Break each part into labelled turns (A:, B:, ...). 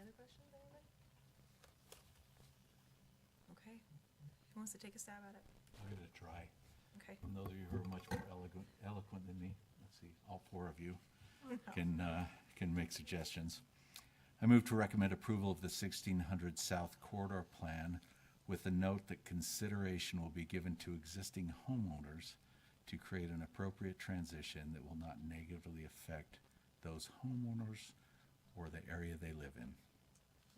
A: Other questions, anybody? Okay, who wants to take a stab at it?
B: I'll give it a try.
A: Okay.
B: I know that you're much more eloquent, eloquent than me. Let's see, all four of you can, uh, can make suggestions. I move to recommend approval of the 1600 South Corridor Plan with the note that consideration will be given to existing homeowners to create an appropriate transition that will not negatively affect those homeowners or the area they live in,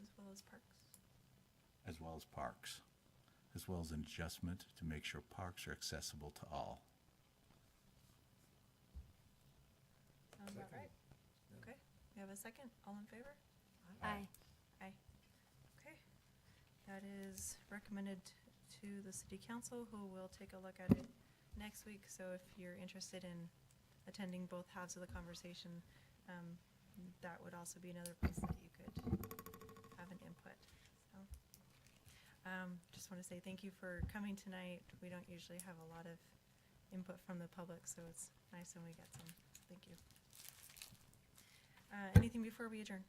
A: As well as parks.
B: as well as parks, as well as an adjustment to make sure parks are accessible to all.
A: Sound about right? Um, Okay, we have a second, all in favor?
C: Aye.
A: Aye. Okay, that is recommended to the city council, who will take a look at it next week. So if you're interested in attending both halves of the conversation, um, that would also be another place that you could have an input, so. Um, just want to say thank you for coming tonight. We don't usually have a lot of input from the public, so it's nice when we get some. Thank you. Uh, anything before we adjourn?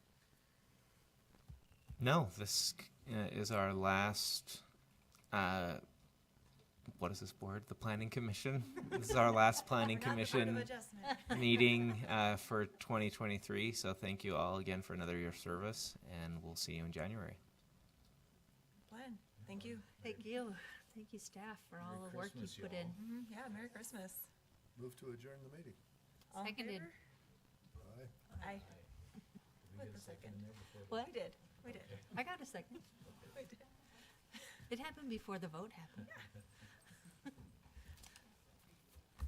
D: No, this uh, is our last. Uh, what is this board? The Planning Commission. this is our last Planning
A: We're not the Board of
D: Commission
A: Adjustment.
D: meeting uh, for 2023. So thank you all again for another year of service, and we'll see you in January.
A: Glenn, thank you.
C: Thank you. Thank you, staff, for all
E: Merry
C: the work you
E: Christmas,
C: put
E: y'all.
C: in.
A: Mhm, Yeah, Merry Christmas.
E: Move to adjourn the meeting.
A: All in
C: Seconded.
A: favor?
E: Aye.
A: Aye.
E: Did we
A: With
E: get
A: the
E: a second in
A: second.
E: there before we-
C: What?
A: We did, we did,
C: I got a second.
A: we did.
C: It happened before the vote happened.